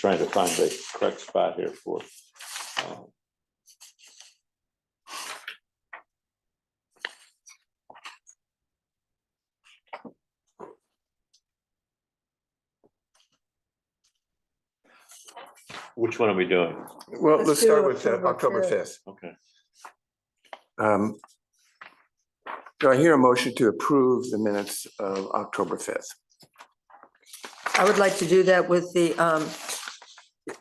trying to find the correct spot here for. um, Which one are we doing? Well, Let's let's start do with uh, October October fifth. fifth. Okay, Um, Do I hear a motion to approve the minutes of October fifth? I would like to do that with the, um,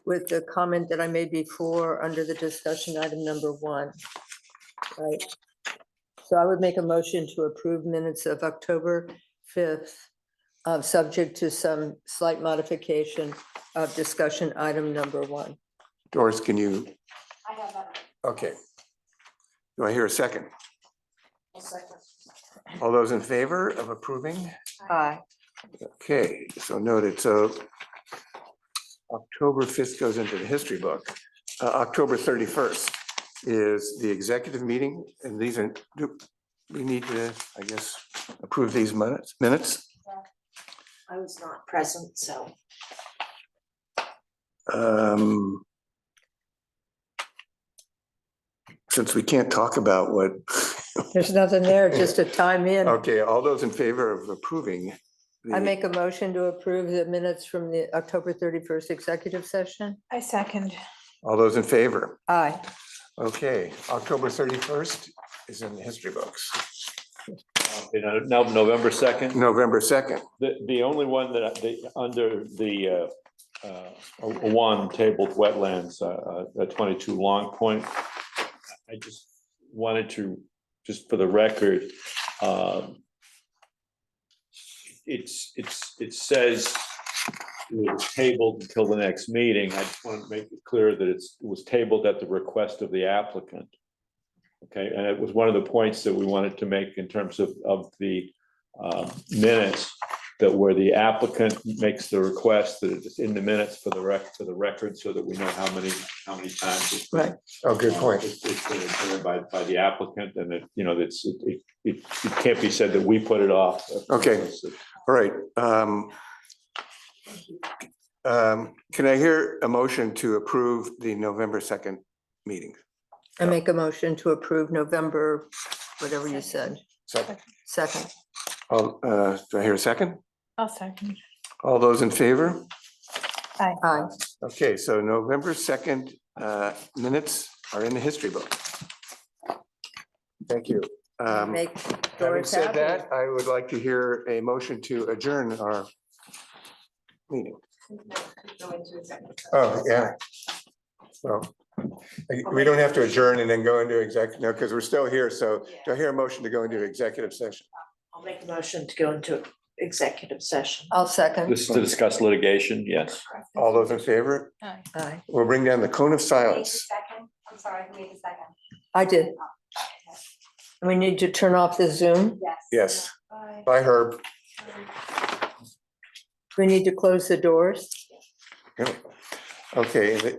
with the comment that I made before, under the discussion item number one. Right. So I would make a motion to approve minutes of October 5th, uh, subject to some slight modification of discussion item number one. Doris, can you? Okay. Do I hear a second? All those in favor of approving? Aye. Okay, so noted. So October fifth goes into the history book. Uh, October thirty-first is the executive meeting, and these are, do we need to, I guess, approve these minutes, minutes? I was not present, so. Um Since we can't talk about what, There's nothing there, just a time in. okay, all those in favor of approving. the- I make a motion to approve the minutes from the October 31st executive session. I second. All those in favor. Aye. Okay, October thirty-first is in the history books. You know, now November second, November second, the, the only one that, I- the, under the, uh, uh, one tabled wetlands, uh, uh, twenty-two Long Point. I just wanted to, just for the record, um, it's, it's, it says it was tabled until the next meeting. I just want to make it clear that it's, it was tabled at the request of the applicant. Okay, and it was one of the points that we wanted to make in terms of, of the um, minutes, that where the applicant makes the request, that it's in the minutes for the rec, for the record, so that we know how many, how many times. it's been- Right. oh, good point. It's it's been determined by, by the applicant, and it, you know, that's, it, it, it it can't be said that we put it off. Okay. All right. um, um, Can I hear a motion to approve the November second meeting? I make a motion to approve November, whatever you said, Second. second. All, uh, Do I hear a second? I'll second. All those in favor? Aye. Okay, so November 2nd uh, minutes are in the history book. Thank you. Um, Make Having Doris said happy. that, I would like to hear a motion to adjourn our meeting. Oh, yeah. Well, we don't have to adjourn and then go into exec, no, because we're still here. So do I hear a motion to go into executive session? I'll make a motion to go into executive session. I'll second. This is to discuss litigation, yes. All those in favor? Aye. We'll bring down the cone of Wait a silence. second, I'm sorry, wait a second, I did. We need to turn off the Zoom. yes. Yes. Bye. Bye, Herb. We need to close the doors. Okay,